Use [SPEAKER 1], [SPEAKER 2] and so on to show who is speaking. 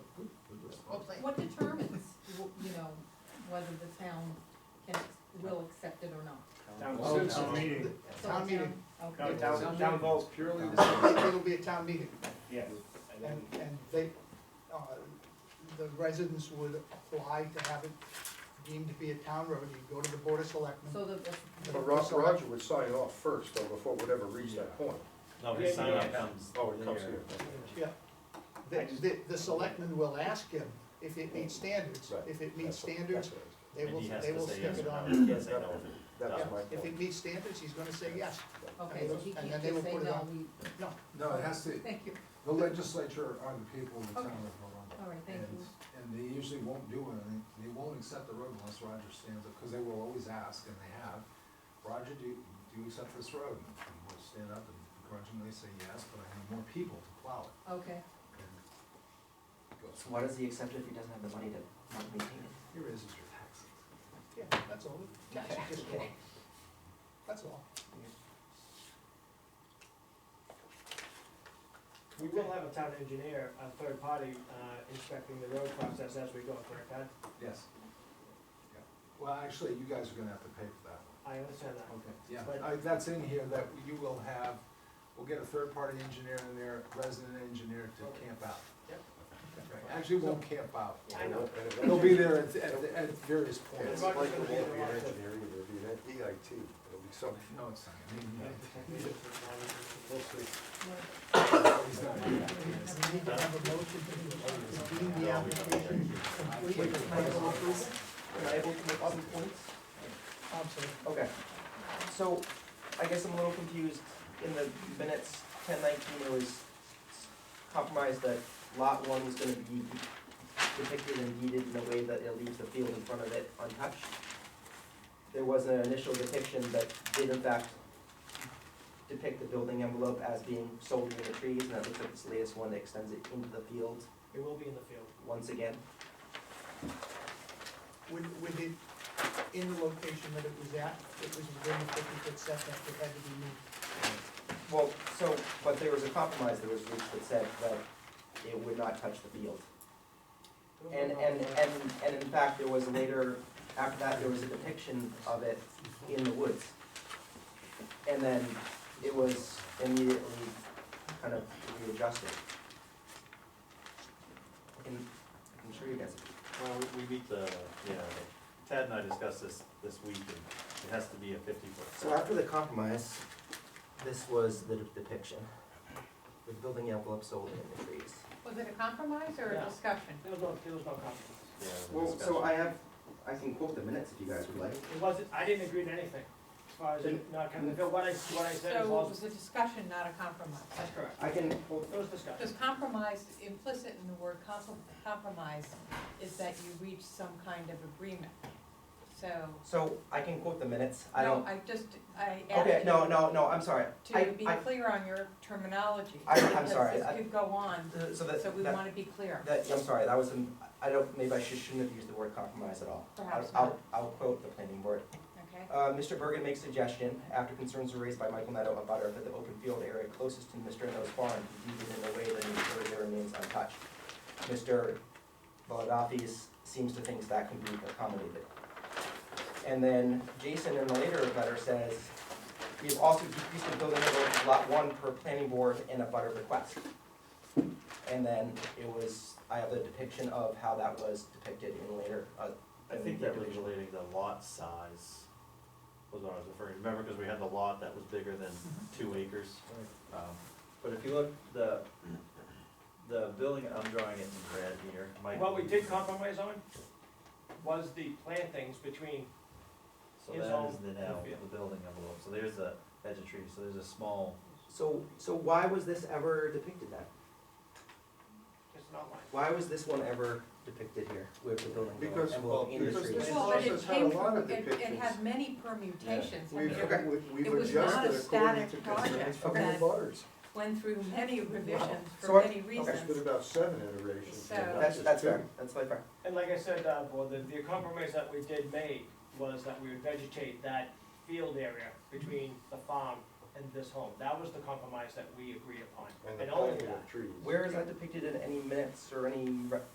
[SPEAKER 1] hopefully.
[SPEAKER 2] What determines, w- you know, whether the town can, will accept it or not?
[SPEAKER 3] Town
[SPEAKER 4] Well,
[SPEAKER 3] votes,
[SPEAKER 4] town-
[SPEAKER 3] meeting,
[SPEAKER 2] So
[SPEAKER 1] Town
[SPEAKER 2] the
[SPEAKER 1] meeting.
[SPEAKER 2] town-
[SPEAKER 3] town,
[SPEAKER 2] Okay.
[SPEAKER 3] town, town votes,
[SPEAKER 4] Purely the
[SPEAKER 1] It'll be- It'll be a town meeting,
[SPEAKER 3] yes, and
[SPEAKER 1] and,
[SPEAKER 3] then,
[SPEAKER 1] and they, uh, the residents would apply to have it deemed to be a town road, you go to the board of selectmen.
[SPEAKER 2] So the, the-
[SPEAKER 5] But Ro- Roger would sign off first, though, before it would ever reach that point.
[SPEAKER 6] No, his sign up comes.
[SPEAKER 5] Oh, it comes here.
[SPEAKER 1] Yeah. The, the, the selectmen will ask him if it meets standards,
[SPEAKER 5] Right.
[SPEAKER 1] if it meets
[SPEAKER 5] That's what-
[SPEAKER 1] standards,
[SPEAKER 5] that's what I
[SPEAKER 1] they
[SPEAKER 6] And
[SPEAKER 1] will,
[SPEAKER 6] he has
[SPEAKER 1] they
[SPEAKER 6] to
[SPEAKER 1] will
[SPEAKER 6] say
[SPEAKER 1] stick
[SPEAKER 6] yes
[SPEAKER 1] it
[SPEAKER 6] or no.
[SPEAKER 1] on.
[SPEAKER 6] He can't say no.
[SPEAKER 5] was- That was my
[SPEAKER 1] If
[SPEAKER 5] point.
[SPEAKER 1] it meets standards, he's gonna say yes,
[SPEAKER 2] okay, so he
[SPEAKER 1] And then
[SPEAKER 2] can't
[SPEAKER 1] they
[SPEAKER 2] just
[SPEAKER 1] will
[SPEAKER 2] say,
[SPEAKER 1] put it
[SPEAKER 2] no,
[SPEAKER 1] on.
[SPEAKER 2] we,
[SPEAKER 1] no,
[SPEAKER 7] No, it has to,
[SPEAKER 2] thank you,
[SPEAKER 7] the legislature are the people in the town of
[SPEAKER 2] all
[SPEAKER 7] Arundel.
[SPEAKER 2] right, thank
[SPEAKER 7] And,
[SPEAKER 2] you.
[SPEAKER 7] and they usually won't do anything, they won't accept the road unless Roger stands up, because they will always ask, and they have, Roger, do, you- do you accept this road? And we'll stand up and grudgingly say yes, but I need more people to plow it.
[SPEAKER 2] Okay,
[SPEAKER 7] And
[SPEAKER 4] So why does he accept it if he doesn't have the money to not maintain it?
[SPEAKER 7] Here is your taxes.
[SPEAKER 1] yeah, that's all, Taxes just go up. that's all.
[SPEAKER 8] We will have a town engineer, a third party, uh, inspecting the road process as we go, correct, Ed?
[SPEAKER 7] Yes. Yeah. Well, actually, you guys are gonna have to pay for that one.
[SPEAKER 8] I understand that.
[SPEAKER 7] Okay, yeah,
[SPEAKER 8] But-
[SPEAKER 7] I, that's in here, that you will have, we'll get a third-party engineer in there, resident engineer to
[SPEAKER 8] Okay.
[SPEAKER 7] camp out.
[SPEAKER 8] Yep.
[SPEAKER 7] Right, Actually, won't camp out,
[SPEAKER 8] I know.
[SPEAKER 5] And it
[SPEAKER 7] they'll
[SPEAKER 5] won't-
[SPEAKER 7] be there at, at, at various
[SPEAKER 5] And it's
[SPEAKER 7] points.
[SPEAKER 5] like it won't be an engineer, either, it'll be an EIT, it'll be something.
[SPEAKER 7] No, it's not, I mean,
[SPEAKER 5] We'll see.
[SPEAKER 7] no, he's not.
[SPEAKER 1] We need to have a motion to deem the application complete. Am I able to make other points? I'm sorry.
[SPEAKER 4] Okay, so I guess I'm a little confused, in the minutes, ten nineteen, it was compromised that lot one was gonna be depicted and deeded in a way that it leaves the field in front of it untouched. There was an initial depiction that did in fact depict the building envelope as being solely in the trees, and that looks like this latest one that extends it into the field
[SPEAKER 8] It will be in the field.
[SPEAKER 4] once again.
[SPEAKER 1] With, with it in the location that it was at, it was within the fifty-foot setback, it had to be moved.
[SPEAKER 4] Well, so, but there was a compromise that was reached that said that it would not touch the field. And, and, and, and in fact, there was later, after that, there was a depiction of it in the woods. And then it was immediately kind of readjusted. And I'm sure you guys,
[SPEAKER 6] Well, we- we meet the, yeah, Tad and I discussed this this week, and it has to be a fifty
[SPEAKER 4] so
[SPEAKER 6] foot.
[SPEAKER 4] after the compromise, this was the depiction, the building envelope solely in the trees.
[SPEAKER 2] was it a compromise or a
[SPEAKER 8] Yeah.
[SPEAKER 2] discussion?
[SPEAKER 8] There was no, there was no compromise.
[SPEAKER 6] Yeah, the
[SPEAKER 4] Well, so
[SPEAKER 6] discussion.
[SPEAKER 4] I have, I can quote the minutes if you guys would like.
[SPEAKER 8] It wasn't, I didn't agree to anything, as far as it not coming, what I, what I said is
[SPEAKER 2] So it
[SPEAKER 8] all,
[SPEAKER 2] was a discussion, not a compromise.
[SPEAKER 8] that's correct.
[SPEAKER 4] I can quote
[SPEAKER 8] It was discussed.
[SPEAKER 2] Because compromise, implicit in the word compro- compromise is that you reach some kind of agreement. So,
[SPEAKER 4] So I can quote the minutes, I
[SPEAKER 2] no,
[SPEAKER 4] don't,
[SPEAKER 2] I just, I
[SPEAKER 4] okay,
[SPEAKER 2] asked
[SPEAKER 4] no,
[SPEAKER 2] you
[SPEAKER 4] no, no, I'm sorry. I-
[SPEAKER 2] to be
[SPEAKER 4] I-
[SPEAKER 2] clear on your terminology.
[SPEAKER 4] I- I'm
[SPEAKER 2] because
[SPEAKER 4] sorry,
[SPEAKER 2] this
[SPEAKER 4] I-
[SPEAKER 2] could go on,
[SPEAKER 4] uh, So that,
[SPEAKER 2] so we
[SPEAKER 4] that,
[SPEAKER 2] want to be clear.
[SPEAKER 4] that- I'm sorry, that was, an- I don't, maybe I should- shouldn't have used the word compromise at all. I'll-
[SPEAKER 2] Perhaps
[SPEAKER 4] I'll, I'll quote the planning board.
[SPEAKER 2] Okay,
[SPEAKER 4] Uh, Mr. Bergen makes suggestion, after concerns were raised by Michael Neto about Butter, that the open field area closest to Mr. Neto's farm be deeded in a way that ensures it remains untouched. Mr. Valadafis seems to think that can be accommodated. And then Jason in the later letter says, we have also decreased the building envelope to lot one per planning board and a butter request. And then it was, I have the depiction of how that was depicted in later, uh,
[SPEAKER 6] I think that was relating to lot size, was what I was referring, remember, because we had the lot that was bigger than two acres. Um, But if you look, the, the building, I'm drawing it in red here, Mike.
[SPEAKER 8] What we did compromise on was the plantings between,
[SPEAKER 6] So
[SPEAKER 8] is
[SPEAKER 6] that
[SPEAKER 8] all
[SPEAKER 6] is the now,
[SPEAKER 8] field.
[SPEAKER 6] the building envelope, so there's the edge of trees, so there's a small,
[SPEAKER 4] So, so why was this ever depicted then?
[SPEAKER 8] it's an outline.
[SPEAKER 4] Why was this one ever depicted here with the building
[SPEAKER 5] Because, well,
[SPEAKER 4] envelope in the
[SPEAKER 5] because
[SPEAKER 4] trees?
[SPEAKER 5] this
[SPEAKER 2] Well, but it
[SPEAKER 5] process had a
[SPEAKER 2] came
[SPEAKER 5] lot
[SPEAKER 2] from-
[SPEAKER 5] of
[SPEAKER 2] it- It
[SPEAKER 5] depictions.
[SPEAKER 2] had many permutations. I mean,
[SPEAKER 5] We've,
[SPEAKER 2] it
[SPEAKER 4] Okay.
[SPEAKER 5] we-
[SPEAKER 2] It
[SPEAKER 5] we've
[SPEAKER 2] was not
[SPEAKER 5] adjusted
[SPEAKER 2] a
[SPEAKER 5] according to
[SPEAKER 2] static project
[SPEAKER 5] concerns from the
[SPEAKER 2] that-
[SPEAKER 5] butters.
[SPEAKER 2] Went through many revisions
[SPEAKER 4] So
[SPEAKER 2] for
[SPEAKER 4] I-
[SPEAKER 2] many
[SPEAKER 5] There's been
[SPEAKER 2] reasons.
[SPEAKER 5] about seven iterations.
[SPEAKER 2] So-
[SPEAKER 5] and not
[SPEAKER 4] That's,
[SPEAKER 5] just
[SPEAKER 4] that's
[SPEAKER 5] two.
[SPEAKER 4] fair, that's my fair.
[SPEAKER 8] And like I said, uh, well, the, the compromise that we did make was that we would vegetate that field area between the farm and this home. That was the compromise that we agreed upon,
[SPEAKER 5] And the
[SPEAKER 8] and only
[SPEAKER 5] planting
[SPEAKER 8] that.
[SPEAKER 5] of trees.
[SPEAKER 4] Where is that depicted in any minutes or any re-